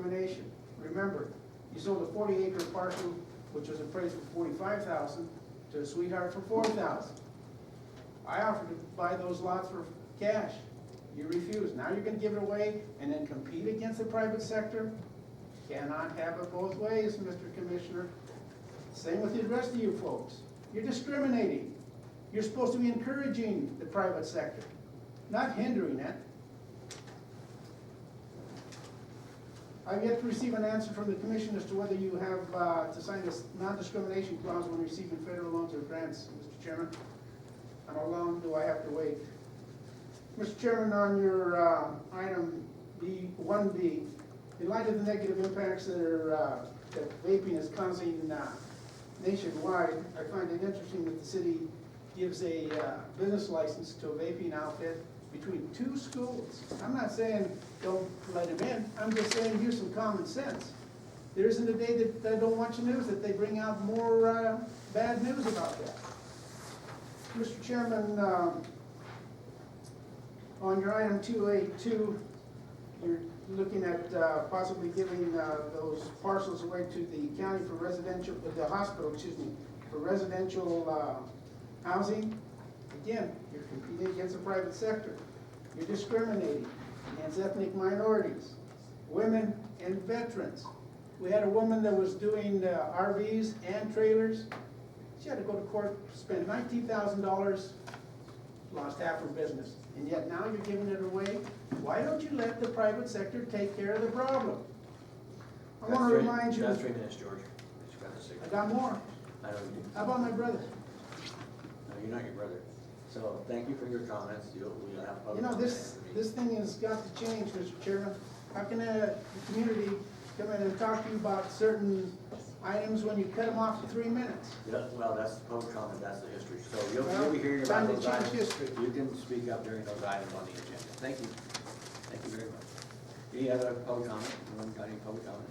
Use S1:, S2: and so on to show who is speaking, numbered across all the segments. S1: examination. Remember, you sold a forty acre parcel, which was appraised for forty-five thousand, to a sweetheart for four thousand. I offered to buy those lots for cash. You refused. Now you're gonna give it away and then compete against the private sector? Cannot have it both ways, Mr. Commissioner. Same with the rest of you folks. You're discriminating. You're supposed to be encouraging the private sector, not hindering it. I've yet to receive an answer from the commission as to whether you have, uh, to sign this non-discrimination clause when receiving federal loans or grants, Mr. Chairman. And how long do I have to wait? Mr. Chairman, on your, uh, item B, one B, in light of the negative impacts that are, uh, that vaping is causing, uh, nationwide, I find it interesting that the city gives a, uh, business license to a vaping outfit between two schools. I'm not saying don't let him in, I'm just saying use some common sense. There isn't a day that I don't watch the news that they bring out more, uh, bad news about that. Mr. Chairman, um, on your item two eight two, you're looking at uh, possibly giving uh, those parcels away to the county for residential, uh, the hospital, excuse me, for residential uh, housing. Again, you're competing against the private sector. You're discriminating against ethnic minorities, women, and veterans. We had a woman that was doing uh, RVs and trailers. She had to go to court, spend nineteen thousand dollars lost half her business, and yet now you're giving it away? Why don't you let the private sector take care of the problem? I
S2: That's
S1: wanna
S2: three-
S1: remind you,
S2: That's
S1: I
S2: three minutes, George. It's got the six.
S1: got more.
S2: I know you do.
S1: How about my brother?
S2: No, you're not your brother. So thank you for your comments. You'll, we'll have
S1: You
S2: public
S1: know,
S2: comment
S1: this,
S2: after the
S1: this thing has got to change, Mr. Chairman. How can a community come in and talk to you about certain items when you cut them off for three minutes?
S2: meeting. Yeah, well, that's the public comment, that's the history. So you'll,
S1: Well,
S2: you'll be hearing
S1: time to
S2: about those
S1: change
S2: items.
S1: history.
S2: You can speak up during those items on the agenda. Thank you. Thank you very much. Any other public comment? Anyone got any public comment?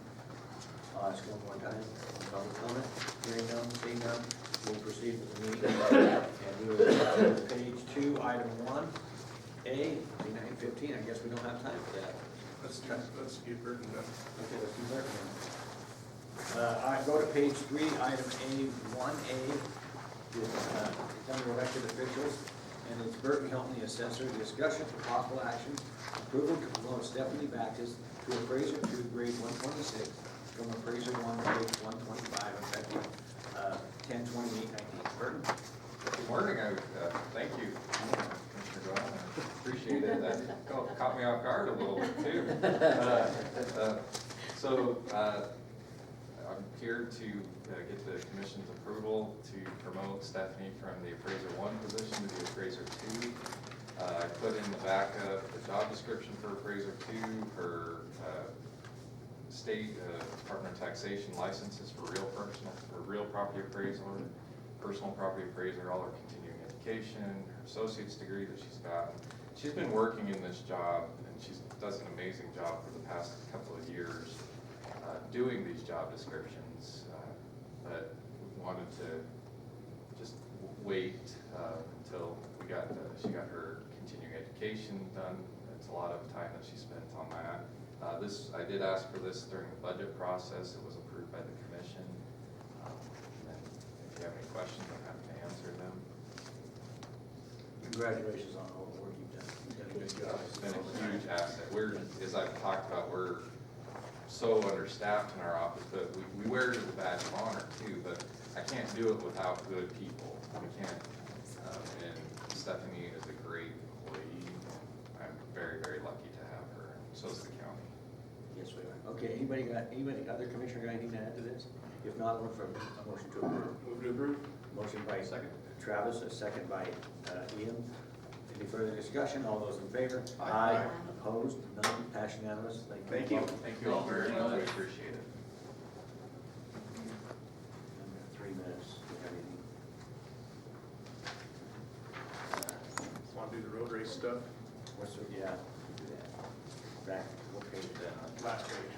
S2: Uh, just one more time, public comment. Hearing none, seeing none, we'll proceed with the meeting. And we will go to page two, item one, A, nine fifteen. I guess we don't have time for that.
S3: Let's, let's get rid of that.
S2: Okay, let's do that one. Uh, all right, go to page three, item A, one A, is, uh, it's under elected officials, and it's Burton Hilton, the assessor, discussion for possible action, approval to promote Stephanie Backus to appraiser two, grade one twenty-six, from appraiser one, grade one twenty-five, effective, uh, ten twenty-eight nineteen. Burton?
S4: Good morning, I, uh, thank you, Commissioner Glenn, I appreciate it, that caught caught me off guard a little bit too. Uh, uh, So, uh, I'm here to uh, get the commission's approval to promote Stephanie from the appraiser one position to the appraiser two. Uh, I put in the backup, the job description for appraiser two, her uh, state uh, Department of Taxation licenses for real personal, for real property appraiser, personal property appraiser, all her continuing education, her associate's degree that she's gotten. She's been working in this job and she does an amazing job for the past couple of years, uh, doing these job descriptions. uh, But we wanted to just w- wait uh, until we got, uh, she got her continuing education done. It's a lot of time that she spent on that. Uh, This, I did ask for this during the budget process, it was approved by the commission. Um, And If you have any questions, I'm happy to answer them.
S2: Congratulations on all the work you've done. You've done a good job.
S4: It's been a huge asset. We're, as I've talked about, we're so understaffed in our office, but we, we wear it as a badge of honor too, but I can't do it without good people. We can't, um, and Stephanie is a great employee. I'm very, very lucky to have her, so is the county.
S2: Yes, we are. Okay, anybody got, anybody, other commissioner got anything to add to this? If not, look for a motion to approve.
S3: Move to approve?
S2: Motion by Travis, a second by uh, Ian. Any further discussion? All those in favor?
S3: Aye.
S2: Opposed? None? Passion unanimous?
S3: Thank you.
S4: Thank you all very much, we appreciate it.
S2: Under Three minutes. Do you have anything?
S3: Want to do the road race stuff?
S2: Uh, What's, the- yeah, we can do that. Back, what page is that on?
S3: Last page.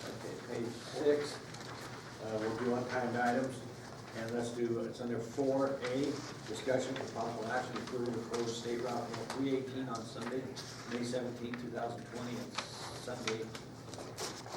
S2: Okay, page six, uh, we'll do unkind items, and let's do, it's under four A, discussion for possible action to approve the closed state route three eighteen on Sunday, May seventeenth, two thousand twenty, and Sunday,